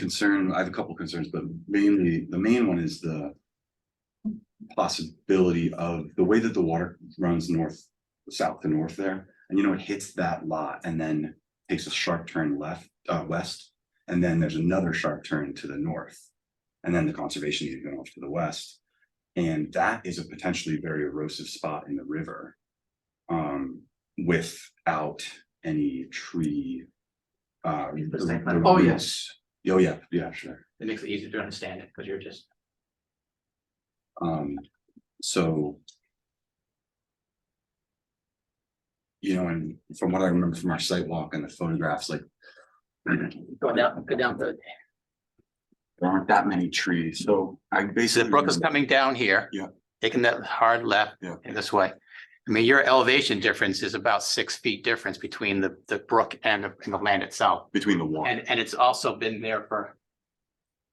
concern, I have a couple concerns, but mainly, the main one is the. Possibility of the way that the water runs north, south to north there, and you know, it hits that lot and then takes a sharp turn left, uh, west. And then there's another sharp turn to the north, and then the conservation area going off to the west. And that is a potentially very erosive spot in the river. Um, without any tree. Uh, Is this like- the- Oh, the- yes. Oh, yeah, yeah, sure. It makes it easier to understand it, because you're just, Um, so. You know, and from what I remember from our site walk and the photographs, like. go down, go down the. There aren't that many trees, so I So basically. the brook is coming down here. Yeah. Taking that hard left Yeah. in this way. I mean, your elevation difference is about six feet difference between the, the brook and the, and the land itself. Between the wall. And, and it's also been there for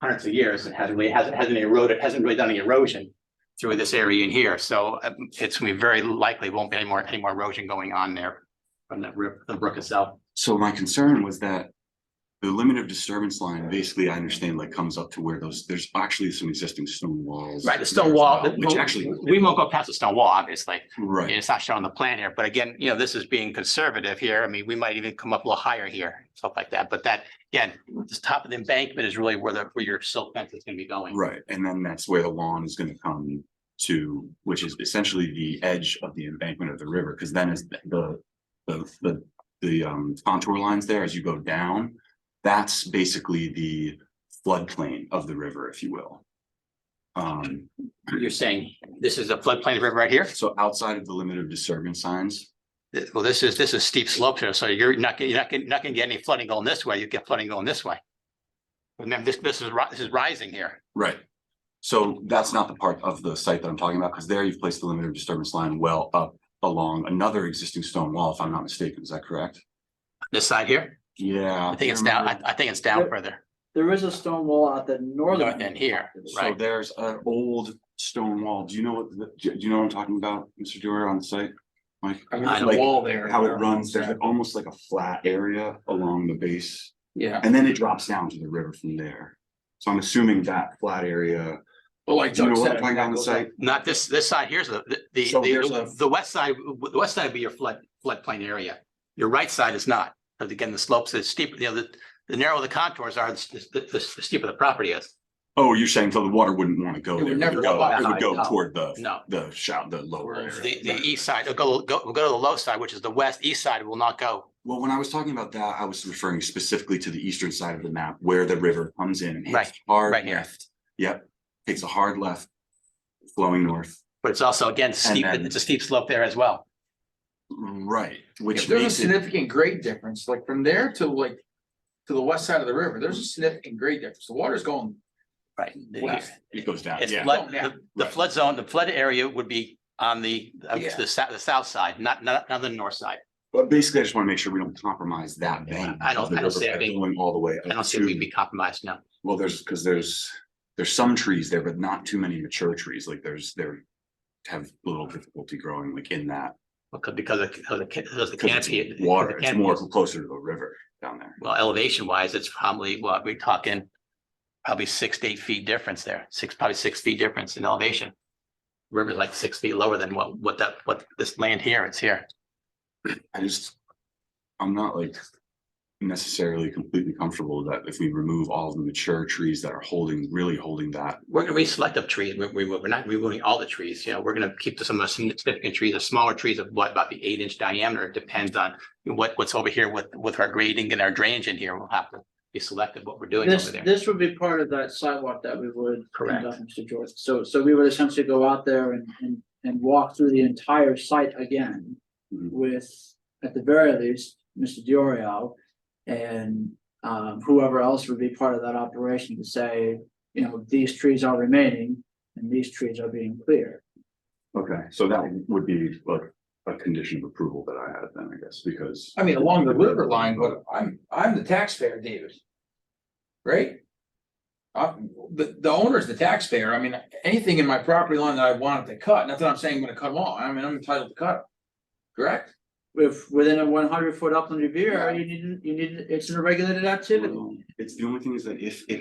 hundreds of years. It hasn't really, hasn't, hasn't eroded, hasn't really done any erosion through this area in here. So um, it's gonna be very likely won't be any more, any more erosion going on there from the, ri- the brook itself. So my concern was that. The limit of disturbance line, basically, I understand like comes up to where those, there's actually some existing stone walls. Right, the there stone as wall, well, Which actually, we won't go past the stone wall, obviously. right. It's not shown on the plan here, but again, you know, this is being conservative here. I mean, we might even come up a little higher here, stuff like that. But that, again, this top of the embankment is really where the, where your silt fence is gonna be going. Right, and then that's where the lawn is gonna come to, which is essentially the edge of the embankment of the river, because then is the. The, the, the um contour lines there as you go down, that's basically the floodplain of the river, if you will. Um, You're saying this is a floodplain river right here? so outside of the limit of disturbance signs, Th- Well, this is, this is steep slope here, so you're not, gonna- you're not, gonna- not gonna get any flooding going this way. You get flooding going this way. Remember, this, this is, ri- this is rising here. right? So that's not the part of the site that I'm talking about, because there you've placed the limit of disturbance line well up along another existing stone wall, if I'm not mistaken, is that correct? This side here, Yeah. I think it's down, I, I think it's down Yep. further. There is a stone wall at the northern. North end here, So right? there's an old stone wall. Do you know what, the- do do you know what I'm talking about, Mr. Dewar, on the site? Like, I mean, I there's like a wall there. how it runs, there's almost like a flat area along the base, Yeah, and then it drops down to the river from there. So I'm assuming that flat area, but like do you Doug know what said. I'm talking about on the goes up. site? Not this, this side here's the, the- the, So there's a- the, the west side, the west side would be your flood, floodplain area. Your right side is not, because again, the slopes is steep, you know, the, the narrower the contours are, the, the, the steeper the property is. Oh, you're saying so the water wouldn't want to go It would there. never go- go up. It would go No. toward the, No, the shout, the lower the, area. the east side, it'll go, go, we'll go to the low side, which is the west, east side will not go. Well, when I was talking about that, I was referring specifically to the eastern side of the map where the river comes in and hits Right, hard right here. left. Yep, takes a hard left, flowing north. But it's also, again, steep, then- it's a steep slope there as well. Right, Yeah, which There's a makes it, significant grade difference, like from there to like, to the west side of the river, there's a significant grade difference. The water's going. Right. West. it goes down, It's yeah, flood, Yeah. the- the flood zone, the flood area would be on the, uh, Yeah. the south, the south side, not, not, not the north side. but basically, I just wanna make sure we don't compromise that bank. I don't- of the I don't river see it by being- Going all the way. I up don't see we'd to- be compromised now. Well, there's, cause there's, there's some trees there, but not too many mature trees, like there's, there have little difficulty growing like in that. Because, because of, because of the ca- because the 'cause canopy. it's because the Water, it's canopy more is- closer to the river down there. Well, elevation wise, it's probably, what, we're talking probably six to eight feet difference there, six, probably six feet difference in elevation. River's like six feet lower than what, what that, what this land here is here. I just, I'm not like necessarily completely comfortable that if we remove all the mature trees that are holding, really holding that. We're gonna be selective trees, we, we, we're not removing all the trees, you know, we're gonna keep some of the significant trees, the smaller trees of what, about the eight inch diameter, it depends on what, what's over here with, with our grading and our drainage in here, we'll have to be selective what we're doing This, over there. this would be part of that sidewalk that we would. Correct. conduct, Mr. George, so, so we would essentially go out there and, and, and walk through the entire site again Mm-hmm. Mhm. with, at the very least, Mr. Diorio and, um, whoever else would be part of that operation to say, you know, these trees are remaining and these trees are being cleared. Okay. So that would be like a condition of approval that I had then, I guess, because. I mean, along the river line, but I'm, I'm the taxpayer, David. Right? Uh, the, the owner's the taxpayer. I mean, anything in my property line that I wanted to cut, not that I'm saying I'm gonna cut them all. I mean, I'm entitled to cut. 'em. Correct? If, within a one hundred foot upland review, area, Yeah. you need, you need, it's an regulated activity. It's the only thing is that if, if